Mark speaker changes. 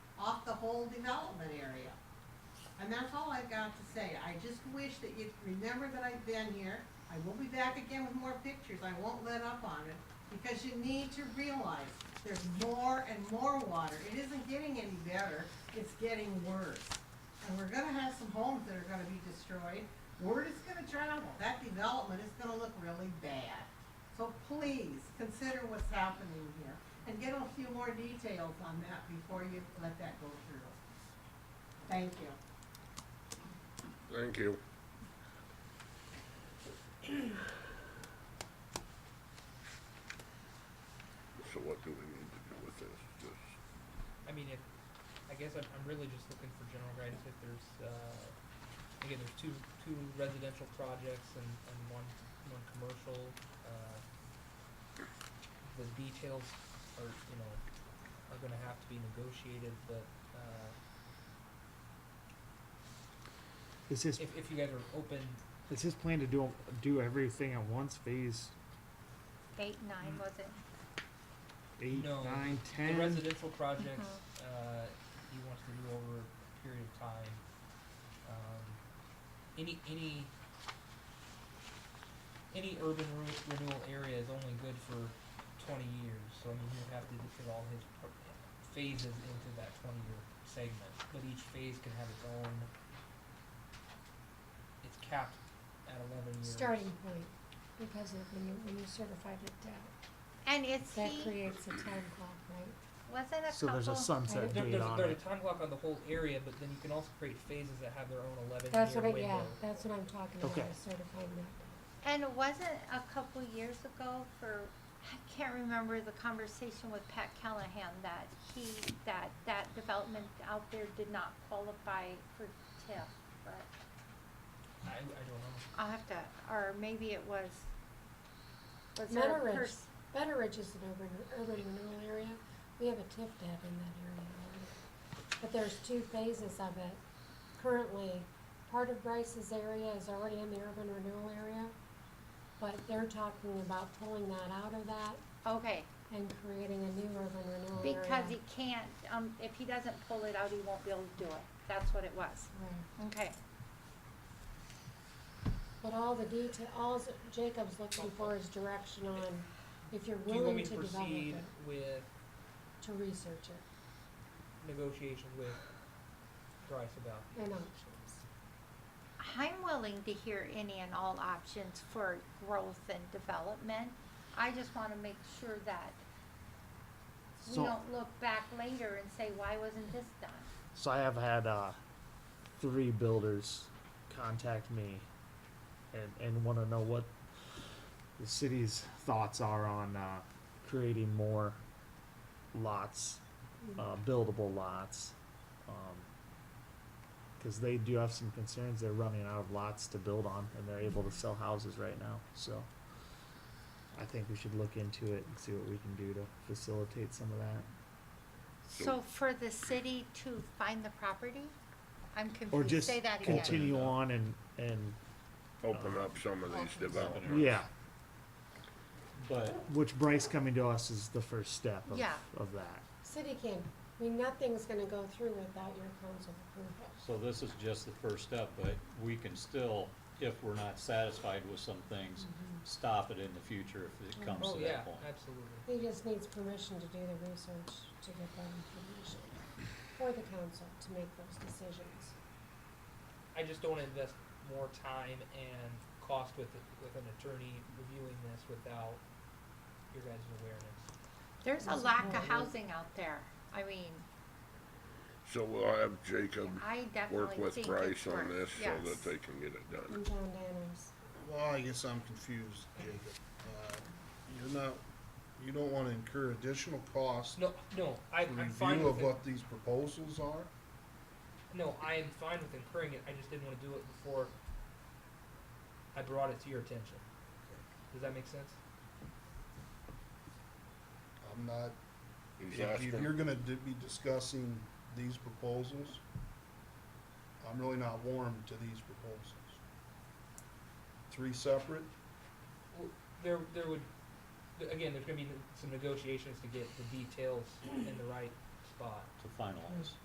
Speaker 1: whole development area. And that's all I've got to say. I just wish that you'd remember that I've been here. I will be back again with more pictures. I won't let up on it. Because you need to realize there's more and more water. It isn't getting any better. It's getting worse. And we're gonna have some homes that are gonna be destroyed. Word is gonna travel. That development is gonna look really bad. So please, consider what's happening here and get a few more details on that before you let that go through. Thank you.
Speaker 2: Thank you. So what do we need to do with this? Just,
Speaker 3: I mean, if, I guess I'm, I'm really just looking for general guidance if there's, uh, again, there's two, two residential projects and, and one, one commercial, uh, the details are, you know, are gonna have to be negotiated, but, uh,
Speaker 4: Is his
Speaker 3: if, if you guys are open,
Speaker 4: is his plan to do do everything at once? Phase
Speaker 5: Eight, nine, was it?
Speaker 4: eight,
Speaker 3: No,
Speaker 4: nine,
Speaker 3: the
Speaker 4: ten.
Speaker 3: residential projects,
Speaker 6: Uh-huh.
Speaker 3: uh, he wants to do over a period of time. Um, any, any, any urban re- renewal area is only good for twenty years, so I mean, he would have to fit all his pro- phases into that twenty-year segment, but each phase can have its own, it's capped at eleven years.
Speaker 6: starting point, because of when you, when you certified it out,
Speaker 5: And it's
Speaker 6: that
Speaker 5: he,
Speaker 6: creates a time clock, right?
Speaker 5: wasn't a
Speaker 4: so there's a
Speaker 5: couple,
Speaker 6: There-
Speaker 4: sunset
Speaker 3: There,
Speaker 4: date
Speaker 3: there's,
Speaker 4: on
Speaker 3: there's
Speaker 4: it.
Speaker 3: a time clock on the whole area, but then you can also create phases that have their own eleven-year window.
Speaker 6: That's what I, yeah, that's what I'm talking about,
Speaker 4: Okay.
Speaker 6: is certifying that.
Speaker 5: and it wasn't a couple years ago for, I can't remember the conversation with Pat Callahan that he, that, that development out there did not qualify for TIF, but
Speaker 3: I, I don't know.
Speaker 5: I'll have to, or maybe it was, was there a
Speaker 6: Meadow Ridge,
Speaker 5: pers-
Speaker 6: Meadow Ridge is an urban, urban renewal area, we have a TIF dab in that area already. But there's two phases of it. Currently, part of Bryce's area is already in the urban renewal area, but they're talking about pulling that out of that
Speaker 5: Okay,
Speaker 6: and creating a new urban renewal area.
Speaker 5: because he can't, um, if he doesn't pull it out, he won't be able to do it, that's what it was,
Speaker 6: Right.
Speaker 5: okay.
Speaker 6: But all the detail, all s- Jacob's looking for is direction on if you're
Speaker 3: Do you want
Speaker 6: willing
Speaker 3: me
Speaker 6: to
Speaker 3: to
Speaker 6: develop it,
Speaker 3: proceed with
Speaker 6: to research it,
Speaker 3: negotiations with Bryce about these?
Speaker 6: and um, options.
Speaker 5: I'm willing to hear any and all options for growth and development. I just wanna make sure that we
Speaker 4: So-
Speaker 5: don't look back later and say, why wasn't this done?
Speaker 4: So I have had uh, three builders contact me and, and want to know what the city's thoughts are on uh, creating more lots, uh, buildable lots. Because they do have some concerns. They're running out of lots to build on and they're able to sell houses right now. So I think we should look into it and see what we can do to facilitate some of that.
Speaker 5: So for the city to find the property? I'm
Speaker 4: or
Speaker 5: confused,
Speaker 4: just
Speaker 5: say that again.
Speaker 4: continue on and and
Speaker 2: open up some of these developments.
Speaker 4: yeah
Speaker 7: But
Speaker 4: which bryce coming to us is the first step of,
Speaker 5: Yeah.
Speaker 4: of that
Speaker 6: City can, I mean, nothing's gonna go through without your council approval.
Speaker 7: So this is just the first step, but we can still, if we're not satisfied with some things, stop it in the future if it comes
Speaker 3: Mm-hmm. Oh,
Speaker 7: to
Speaker 3: yeah,
Speaker 7: that point.
Speaker 3: absolutely.
Speaker 6: He just needs permission to do the research, to get that information, for the council to make those decisions.
Speaker 3: I just don't wanna invest more time and cost with, it- with an attorney reviewing this without your guys' awareness.
Speaker 5: There's a lack of housing out there, I mean,
Speaker 2: So we'll have Jacob
Speaker 5: I
Speaker 2: Um, work
Speaker 5: definitely
Speaker 2: with
Speaker 5: think it's
Speaker 2: Bryce on
Speaker 5: worth,
Speaker 2: this so
Speaker 5: yes.
Speaker 2: that they can get it done.
Speaker 6: And John Danos.
Speaker 8: Well, I guess I'm confused, Jacob. Uh, You're not, you don't wanna incur additional costs
Speaker 3: No, no, I,
Speaker 8: for
Speaker 3: I'm fine
Speaker 8: review
Speaker 3: with
Speaker 8: of
Speaker 3: it,
Speaker 8: what these proposals are?
Speaker 3: no, I am fine with incurring it, I just didn't wanna do it before I brought it to your attention. Does that make sense?
Speaker 8: I'm not,
Speaker 2: He's
Speaker 8: if you-
Speaker 2: asking-
Speaker 8: you're gonna di- be discussing these proposals, I'm really not warm to these proposals. Three separate,
Speaker 3: There, there would, th- again, there's gonna be n- some negotiations to get the details in the right spot.
Speaker 7: To finalize.